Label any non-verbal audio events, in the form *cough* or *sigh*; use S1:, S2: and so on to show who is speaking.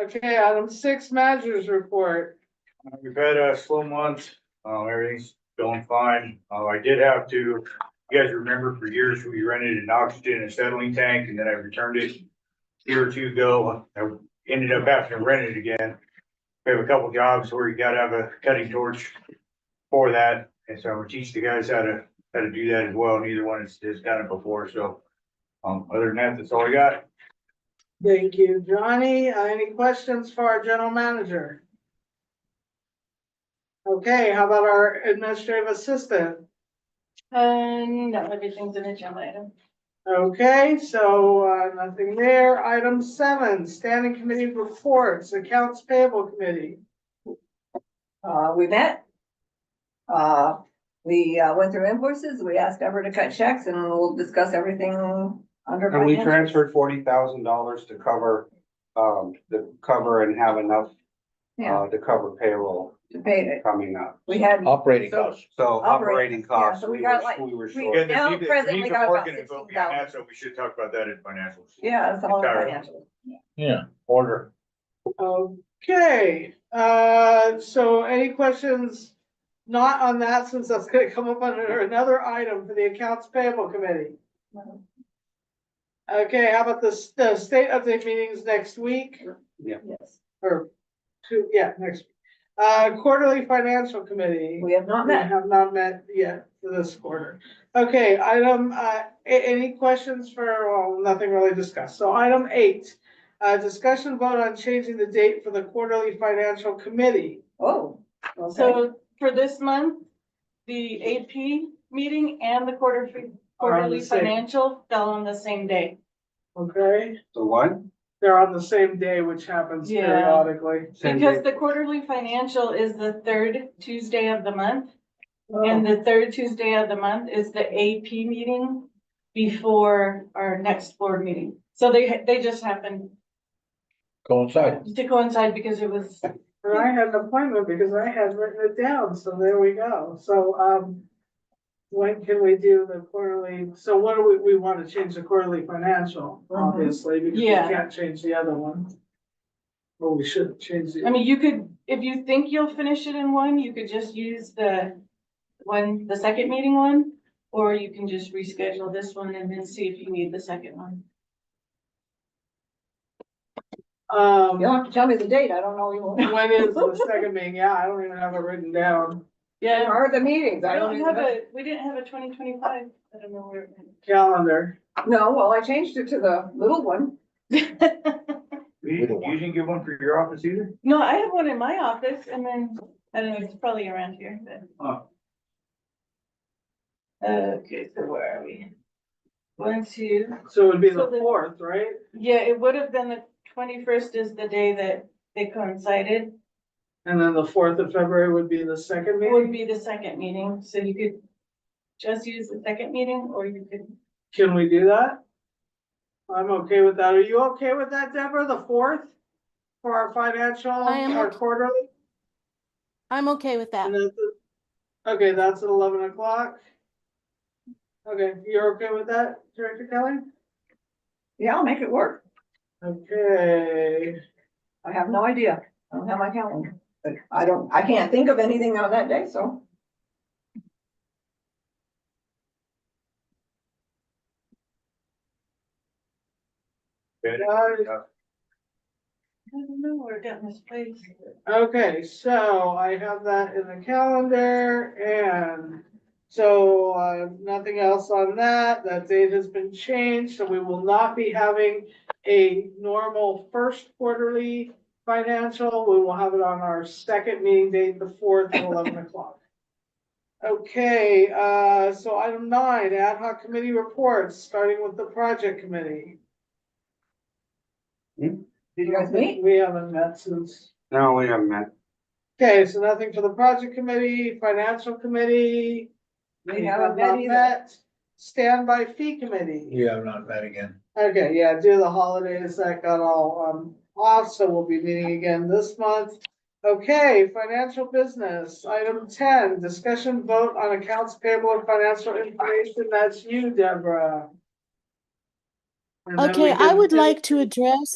S1: Okay, item six, managers report.
S2: Uh, We've had a slow month, uh, everything's going fine. Uh, I did have to, you guys remember for years, we rented an oxygen and settling tank and then I returned it. a Year or two ago, I ended up having to rent it again. We have a couple jobs where you gotta have a cutting torch for that. And so I'm gonna teach the guys how to, how to do that as well. Neither one has, has done it before, so. Um, other than that, that's all I got.
S1: Thank you, Johnny. Uh, Any questions for our general manager? Okay, how about our administrative assistant?
S3: Uh, no, everything's an agenda item.
S1: Okay, so uh, nothing there. Item seven, standing committee reports, accounts payable committee.
S4: Uh, we met. Uh, we uh, went through invoices, we asked Ever to cut checks and we'll discuss everything under.
S5: And we
S4: financials.
S5: transferred forty thousand dollars to cover, um, to cover and have enough,
S4: Yeah,
S5: uh, to cover payroll
S4: to pay it.
S5: coming up.
S4: We had,
S6: Operating
S4: So-
S6: costs.
S5: So
S4: Operating,
S5: operating costs,
S4: yeah, so we
S5: we
S4: got
S5: were,
S4: like-
S5: we were
S4: we-
S5: short.
S2: Yeah, the
S4: Now,
S2: Viva- the
S4: presently
S2: Viva
S4: got about
S2: Park and the Vote Beyond
S4: $16,000.
S2: that, So we should talk about that in financials.
S4: yeah, it's all
S2: Sorry.
S4: financial.
S6: Yeah, order.
S1: Okay, uh, so any questions? Not on that, since that's gonna come up under another item for the accounts payable committee. Okay, how about the, s- the state update meetings next week
S4: Yes,
S1: or two, yeah, next. week. Uh, quarterly financial committee.
S4: we have not
S1: We
S4: met.
S1: have not met yet for this quarter. Okay, item, uh, a- any questions for, well, nothing really discussed. So item eight. Uh, discussion vote on changing the date for the quarterly financial committee.
S4: Oh, okay.
S3: So for this month, the AP meeting and the quarter,
S1: Are on the
S3: quarterly
S1: same.
S3: financial fell on the same day.
S1: Okay,
S5: The what?
S1: they're on the same day, which happens
S3: Yeah.
S1: periodically.
S5: Same
S3: Because
S5: day.
S3: the quarterly financial is the third Tuesday of the month, and the third Tuesday of the month is the AP meeting before our next board meeting. So they, they just happened
S6: Coincide.
S3: to coincide because it was,
S1: And I had an appointment because I had written it down, so there we go. So, um. When can we do the quarterly? So what do we, we want to change the quarterly financial, obviously, because we
S3: Yeah.
S1: can't change the other one. Well, we should change
S3: I
S1: the,
S3: mean, you could, if you think you'll finish it in one, you could just use the one, the second meeting one, or you can just reschedule this one and then see if you need the second one.
S4: You don't
S1: um,
S4: have to tell me the date, I don't know. you-
S1: when is the second meeting? Yeah, I don't even have it written down.
S3: *laughs* Yeah,
S4: Are the meetings,
S3: we
S4: I don't
S3: don't
S4: even
S3: have
S4: know.
S3: a, we didn't have a twenty twenty-five, I don't know where it went.
S1: Calendar.
S4: No, well, I changed it to the little one.
S2: You
S6: We don't want-
S2: you didn't get one for your office either?
S3: No, I have one in my office and then, I don't know, it's probably around here,
S2: Oh.
S3: but. Okay, so where are we? One, two,
S1: So it would be
S3: So
S1: the
S3: the-
S1: fourth, right?
S3: yeah, it would have been the twenty-first is the day that they coincided.
S1: And then the fourth of February would be the second
S3: Would
S1: meeting.
S3: be the second meeting, so you could just use the second meeting or you could,
S1: Can we do that? I'm okay with that. Are you okay with that, Deborah, the fourth? For our financial,
S7: I am
S1: our
S7: okay.
S1: quarterly?
S7: I'm okay with that.
S1: and that's at- Okay, that's at eleven o'clock. Okay, you're okay with that, Director Kelly?
S4: Yeah, I'll make it work.
S1: Okay,
S4: I have no idea. I don't have my calendar. But I don't, I can't think of anything on that day, so.
S1: uh,
S3: I don't know, we're getting this place.
S1: Okay, so I have that in the calendar and so uh, nothing else on that. That date has been changed, so we will not be having a normal first quarterly financial. We will have it on our second meeting date, the fourth at eleven o'clock. Okay, uh, so item nine, ad hoc committee reports, starting with the project committee.
S4: Did you guys meet?
S1: We haven't met since.
S5: No, we haven't met.
S1: Okay, so nothing for the project committee, financial committee.
S4: We haven't
S1: have
S4: met
S1: not
S4: either.
S1: met. Standby fee committee.
S6: Yeah, not bad again.
S1: Okay, yeah, due to the holidays, that got all um off, so we'll be meeting again this month. Okay, financial business, item ten, discussion vote on accounts payable and financial information. That's you, Deborah. And then we
S7: Okay, I
S1: can
S7: would
S1: do-
S7: like to address